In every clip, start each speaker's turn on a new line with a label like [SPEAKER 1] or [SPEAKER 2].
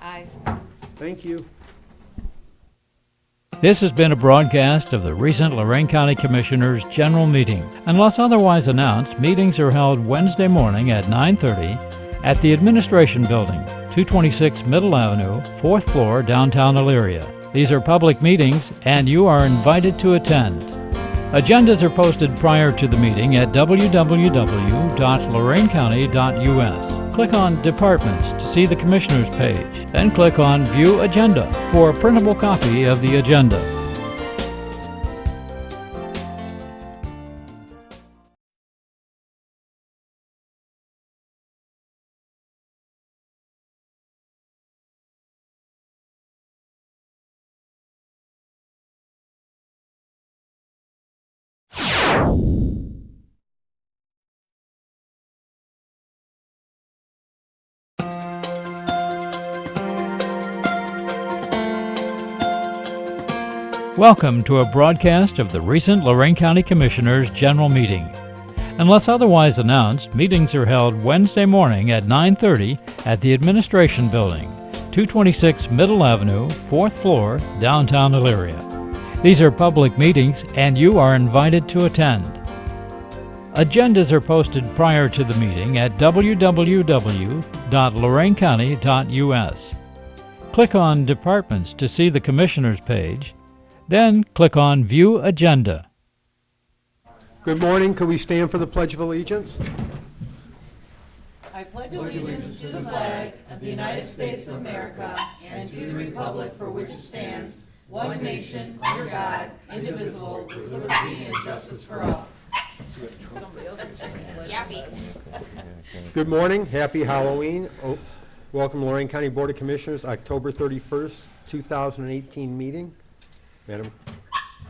[SPEAKER 1] Aye.
[SPEAKER 2] Thank you.
[SPEAKER 3] This has been a broadcast of the recent Lorraine County Commissioners' General Meeting. Unless otherwise announced, meetings are held Wednesday morning at 9:30 at the Administration Building, 226 Middle Avenue, 4th floor, downtown Elyria. These are public meetings and you are invited to attend. Agendas are posted prior to the meeting at www.lorainecounty.us. Click on Departments to see the Commissioners page, then click on View Agenda for a printable copy of the agenda. Welcome to a broadcast of the recent Lorraine County Commissioners' General Meeting. Unless otherwise announced, meetings are held Wednesday morning at 9:30 at the Administration Building, 226 Middle Avenue, 4th floor, downtown Elyria. These are public meetings and you are invited to attend. Agendas are posted prior to the meeting at www.loraincounty.us. Click on Departments to see the Commissioners page, then click on View Agenda.
[SPEAKER 2] Good morning. Could we stand for the Pledge of Allegiance? Good morning. Happy Halloween. Oh, Welcome to Lorraine County Board of Commissioners, October 31st, 2018 meeting. Madam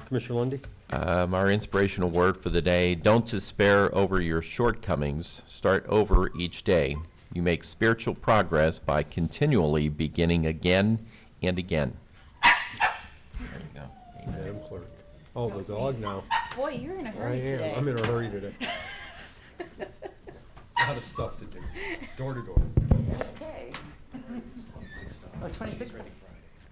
[SPEAKER 2] Commissioner Lundy.
[SPEAKER 4] Um, our inspirational word for the day don't despair over your shortcomings, start over each day. You make spiritual progress by continually beginning again and again. There you go.
[SPEAKER 2] Madam Clerk. Oh, the dog now.
[SPEAKER 1] Boy, you're in a
[SPEAKER 2] I
[SPEAKER 1] hurry today.
[SPEAKER 2] am. I'm in a hurry today. Lot of stuff to do, door to door.
[SPEAKER 1] Oh, 26th.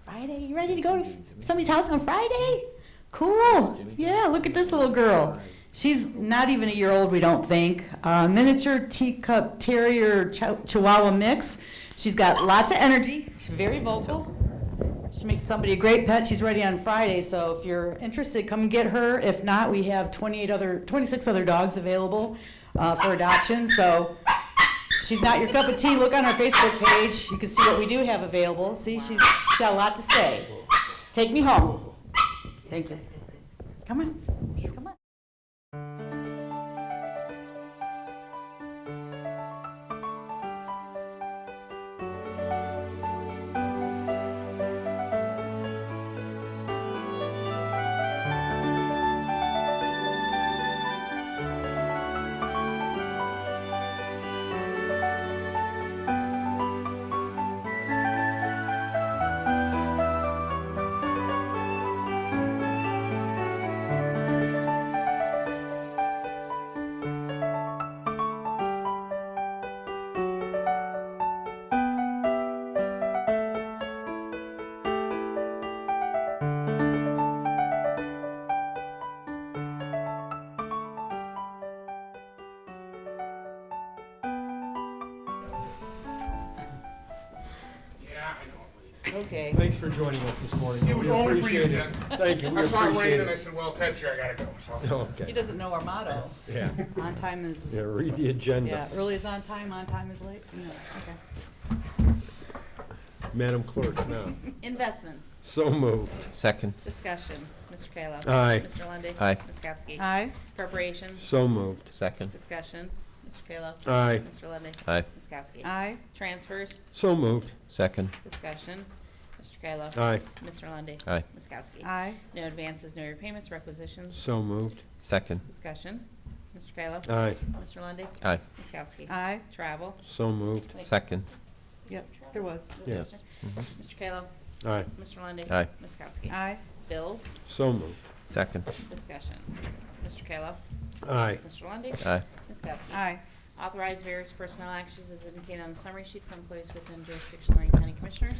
[SPEAKER 1] Friday, you ready to go to somebody's house on Friday? Cool.
[SPEAKER 5] Yeah, look at this little girl. She's not even a year old, we don't think. Uh, miniature teacup terrier chow- chihuahua mix. She's got lots of energy. She's very vocal. She makes somebody a great pet. She's ready on Friday, so if you're interested, come get her. If not, we have 28 other, 26 other dogs available uh, for adoption. So she's not your cup of tea. Look on our Facebook page. You can see what we do have available. See, she's, she's got a lot to say. Take me home. Thank you. Come on. Come on.
[SPEAKER 1] Okay.
[SPEAKER 2] Thanks for joining us this morning.
[SPEAKER 6] It was
[SPEAKER 2] We
[SPEAKER 6] only for you,
[SPEAKER 2] appreciate
[SPEAKER 6] Jen.
[SPEAKER 2] it. Thank you. We
[SPEAKER 6] I saw it rain
[SPEAKER 2] appreciate
[SPEAKER 6] and I
[SPEAKER 2] it.
[SPEAKER 6] said, well, Ted's here, I gotta go, so.
[SPEAKER 2] Okay.
[SPEAKER 1] He doesn't know our motto.
[SPEAKER 2] Yeah,
[SPEAKER 1] On time is,
[SPEAKER 2] yeah, read the
[SPEAKER 1] yeah,
[SPEAKER 2] agenda.
[SPEAKER 1] early is on time, on time is late. Yeah, okay.
[SPEAKER 2] Madam Clerk, now.
[SPEAKER 7] Investments,
[SPEAKER 2] So moved.
[SPEAKER 4] Second,
[SPEAKER 7] discussion, Mr. Kayla.
[SPEAKER 2] Aye.
[SPEAKER 7] Mr. Lundy.
[SPEAKER 4] Aye.
[SPEAKER 7] Ms. Kowski.
[SPEAKER 1] Aye.
[SPEAKER 7] Appropriations,
[SPEAKER 2] So moved.
[SPEAKER 4] second,
[SPEAKER 7] discussion, Mr. Kayla.
[SPEAKER 2] Aye.
[SPEAKER 7] Mr. Lundy.
[SPEAKER 4] Aye.
[SPEAKER 7] Ms. Kowski.
[SPEAKER 1] Aye.
[SPEAKER 7] Transfers,
[SPEAKER 2] So moved.
[SPEAKER 4] second,
[SPEAKER 7] discussion, Mr. Kayla.
[SPEAKER 2] Aye.
[SPEAKER 7] Mr. Lundy.
[SPEAKER 4] Aye.
[SPEAKER 7] Ms. Kowski.
[SPEAKER 1] Aye.
[SPEAKER 7] No advances, no repayments, requisitions,
[SPEAKER 2] So moved.
[SPEAKER 4] second,
[SPEAKER 7] discussion, Mr. Kayla.
[SPEAKER 2] Aye.
[SPEAKER 7] Mr. Lundy.
[SPEAKER 4] aye,
[SPEAKER 7] Ms. Kowski.
[SPEAKER 1] Aye.
[SPEAKER 7] Travel,
[SPEAKER 2] So moved.
[SPEAKER 4] second,
[SPEAKER 1] Yep, there was.
[SPEAKER 2] Yes.
[SPEAKER 7] Mr. Kayla.
[SPEAKER 2] Aye.
[SPEAKER 7] Mr. Lundy.
[SPEAKER 4] Aye.
[SPEAKER 7] Ms. Kowski.
[SPEAKER 1] Aye.
[SPEAKER 7] Bills,
[SPEAKER 2] So moved.
[SPEAKER 4] second,
[SPEAKER 7] discussion, Mr. Kayla.
[SPEAKER 2] Aye.
[SPEAKER 7] Mr. Lundy.
[SPEAKER 4] aye,
[SPEAKER 7] Ms. Kowski.
[SPEAKER 1] Aye.
[SPEAKER 7] Authorize various personnel actions as indicated on the summary sheet for employees within jurisdiction of Lorraine County Commissioners.